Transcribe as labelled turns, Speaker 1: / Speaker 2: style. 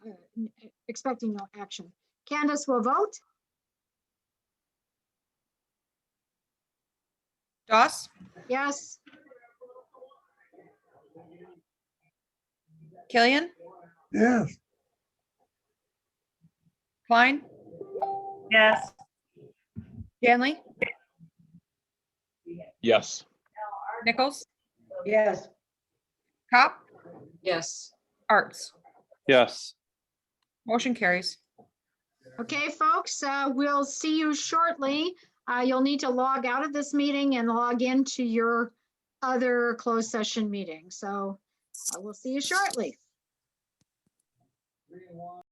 Speaker 1: uh, expecting no action. Candace will vote.
Speaker 2: Doss,
Speaker 1: Yes,
Speaker 2: Killian,
Speaker 3: Yes,
Speaker 2: Klein,
Speaker 4: Yes.
Speaker 2: Danley,
Speaker 5: Yes.
Speaker 2: Nichols,
Speaker 4: Yes.
Speaker 2: Cop,
Speaker 4: Yes.
Speaker 2: Arts.
Speaker 5: Yes.
Speaker 2: Motion carries.
Speaker 1: okay, folks, uh, we'll see you shortly. Uh, You'll need to log out of this meeting and log into your other closed session uh, meeting. So I will see you shortly.